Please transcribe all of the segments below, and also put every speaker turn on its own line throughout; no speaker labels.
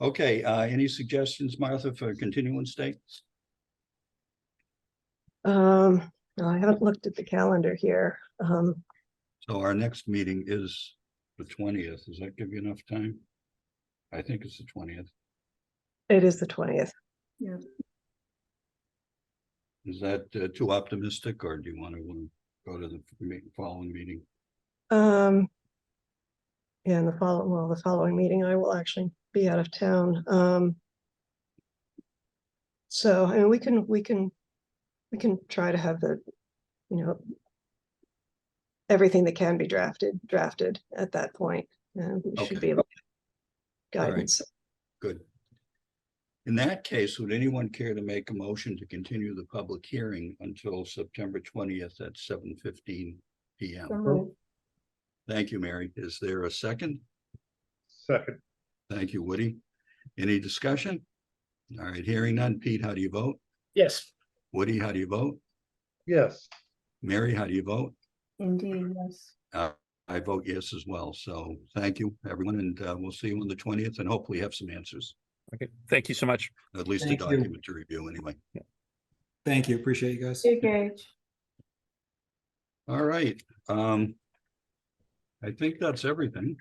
Okay, uh, any suggestions, Martha, for continuance dates?
Um, no, I haven't looked at the calendar here. Um,
So our next meeting is the twentieth. Does that give you enough time? I think it's the twentieth.
it is the twentieth.
Is that uh, too optimistic or do you want to go to the me- following meeting?
Um. Yeah, and the follow, well, the following meeting, I will actually be out of town. Um. So, I mean, we can, we can, we can try to have the, you know. Everything that can be drafted, drafted at that point, and we should
Okay.
be able. to
right.
Guidance.
Good. In that case, would anyone care to make a motion to continue the public hearing until September twentieth at seven fifteen P M? Thank you, Mary. Is there a second?
Second,
Thank you, Woody. Any discussion? All right, hearing none. Pete, how do you vote?
Yes.
Woody, how do you vote?
yes,
Mary, how do you vote?
Indeed, yes.
I vote yes as well. So thank you, everyone, and uh, we'll see you on the twentieth and hopefully have some answers,
Okay, thank you so much.
at least a
Thank you.
document to review anyway.
Thank you. Appreciate you guys.
Thank you, Gage.
All right, um. I think that's everything.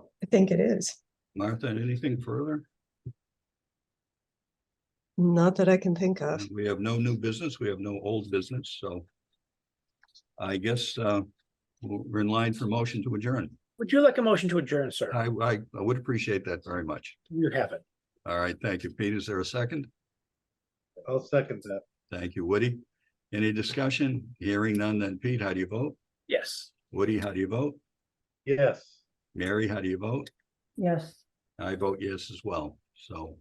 I think it is.
Martha, anything further?
Not that I can think of.
Uh, We have no new business. We have no old business, so. I guess uh, we're in line for motion to adjourn.
Would you like a motion to adjourn, sir?
I, I, I would appreciate that very much.
You have it.
All right, thank you. Pete, is there a second?
I'll second that.
Thank you, Woody. Any discussion? Hearing none, then Pete, how do you vote?
Yes.
Woody, how do you vote?
Yes.
Mary, how do you vote?
Yes.
I vote yes as well. So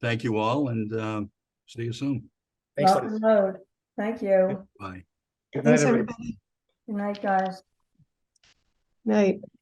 thank you all and um, see you soon.
Thanks,
Rock
Liz.
and load. Thank you.
Bye.
Good night,
Thanks,
everybody.
everybody.
Good night, guys.
Night.